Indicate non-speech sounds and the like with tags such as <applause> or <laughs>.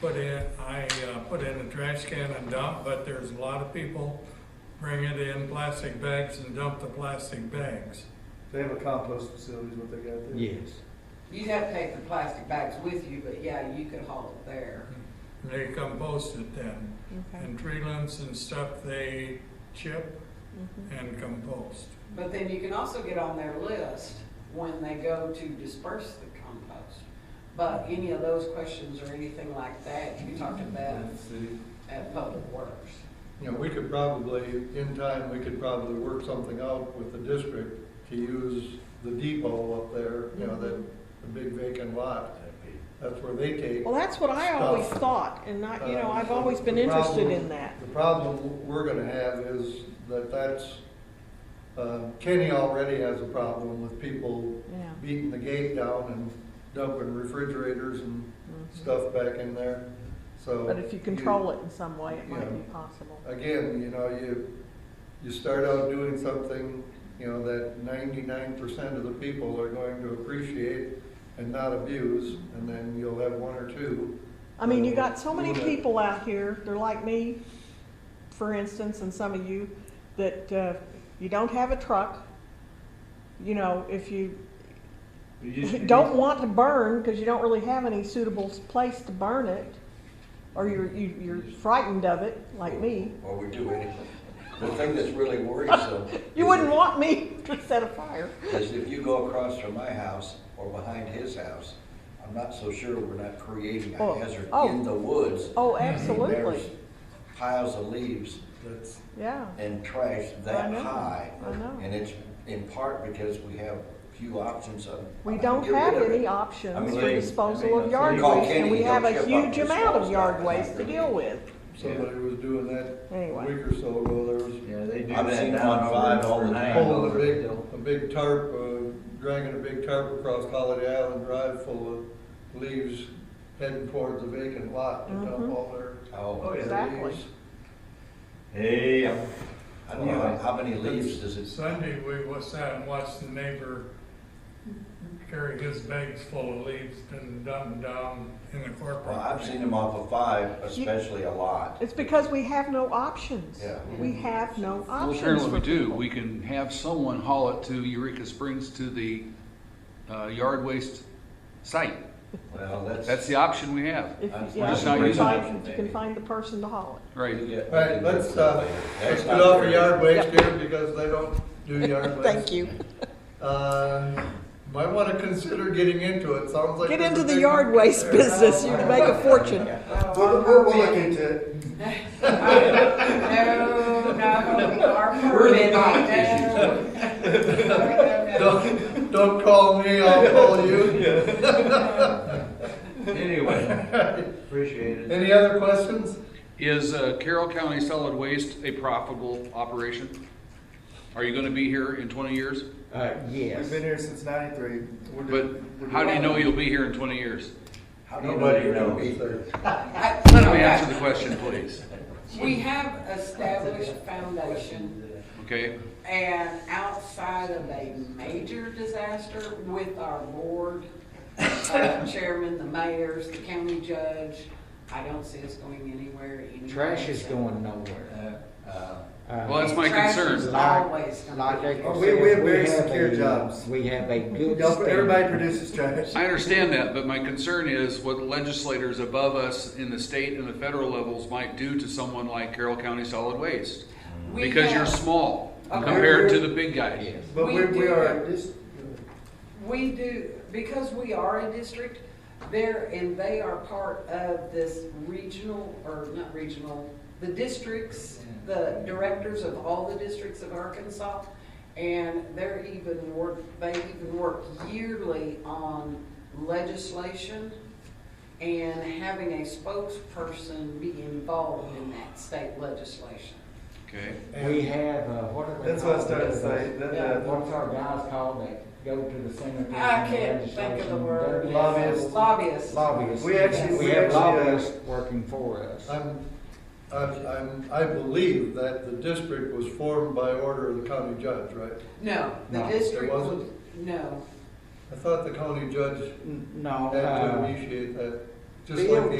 put in, I uh, put in a trash can and dump, but there's a lot of people bring it in plastic bags and dump the plastic bags. They have a compost facility is what they got there. Yes. You'd have to take the plastic bags with you, but yeah, you could haul it there. And they compost it then. Okay. And tree limbs and stuff, they chip Mhm. and compost. But then you can also get on their list when they go to disperse the compost. But any of those questions or anything like that, you talk to Beth And see. at Public Works. You know, we could probably, in time, we could probably work something out with the district to use the depot up there, you know, that, the big vacant lot. That's where they take. Well, that's what I always Stuff. thought, and not, you know, Uh, I've so always been the interested problem- in that. The problem we're gonna have is that that's, uh, Kenny already has a problem with people Yeah. beating the gate down and dumping refrigerators and Mm-hmm. stuff back in there, so. But if you control it in some way, it might yeah. be possible. Again, you know, you, you start out doing something, you know, that ninety-nine percent of the people are going to appreciate and not abuse, and then you'll have one or two. I mean, you got so many Yeah. people out here, they're like me, for instance, and some of you, that uh, you don't have a truck. You know, if you don't want to burn because you don't really have any suitable place to burn it, or you're, you, you're frightened of it, like me. Or we do anything. The thing that's really worrisome. <laughs> You is wouldn't if- want me to set a fire. Is if you go across from my house or behind his house, I'm not so sure we're not creating Oh, a hazard oh. in the woods. Oh, I mean, absolutely. there's Piles of leaves That's, Yeah. and trash I that know, high. I know. And it's in part because we have few options of. We how to don't get have rid of it. any I options mean, for they- disposal I of mean, yard you call waste, and Kenny, we he'll have a chip up huge your amount of small yard stuff. waste to deal with. somebody was doing that a Anyway. week or so ago, there was Yeah, they do. I've sit been down on over five in all the Fernando. time. pulling a big, a big tarp, uh, dragging a big tarp across Holiday Island Drive full of leaves heading towards the vacant lot to dump Mhm. all their, Oh, all their Exactly. leaves. Hey, I'm- I don't know, how- how many leaves does it? Sunday, we was sat and watched the neighbor carry his bags full of leaves and dump them down in the corporate. Well, I've seen them off of five, especially a lot. It's because we have no options. Yeah. We have no Well, options. apparently we for do. people. We can have someone haul it to Eureka Springs to the uh, yard waste site. Well, that's. That's the option we have. If, That's yeah, not if you can using find, options, if you can maybe. find the person to haul it. Right. All All right, let's, uh, Let's get off of yard waste here because they don't do <laughs> yard waste. Thank you. Uh, might want to consider getting into it, sounds like. Get there's a into the big yard market waste there. business, you can make a fortune. We'll, look into it. <laughs> No, no, our permit, no. No, no, no. Don't, don't call me, I'll call <laughs> you. Anyway, appreciate it. Any other questions? Is uh, Carroll County Solid Waste a profitable operation? Are you gonna be here in twenty years? Uh, yes. We've been here since ninety-three. We're But doing- we're how do you doing- know you'll be here in twenty years? How do you know Nobody you're gonna be knows. there? I- Let me answer the question, please. We have established foundation Okay? and outside of a major disaster with our board, uh, chairman, the mayors, the county judge, I don't see us going anywhere. anyway, Trash is so- going nowhere. Uh, uh, Uh, Well, that's my Trash is concern. always Like gonna Jacob Oh, says, we- we have very a- secure jobs. We have a good. Y'all- Everybody standard. produces trash. I understand that, but my concern is what legislators above us in the state and the federal levels might do to someone like Carroll County Solid Waste. be. We Because you're have- small Okay. compared to the big guy. Yes. But We we're, we do are, We do, because we are a district, they're, and they are part of this regional, or not regional, the districts, the directors of all the districts of Arkansas, and they're even work, they even work yearly on legislation and having a spokesperson be involved in that state legislation. Okay. We have, uh, what are they? that's what I called? started to say, that, Uh, uh, What's our guys called that go to the senate? I can't think of the word. Lobbyists. Lobbyists. Lobbyists. We actually- We we have actually, uh, lobbyists working for us. I'm, I'm, I'm, I believe that the district was formed by order of the county judge, right? No, the No, it district, wasn't? was- no. I thought the county judge N- No. had to uh, initiate that, just Bill like the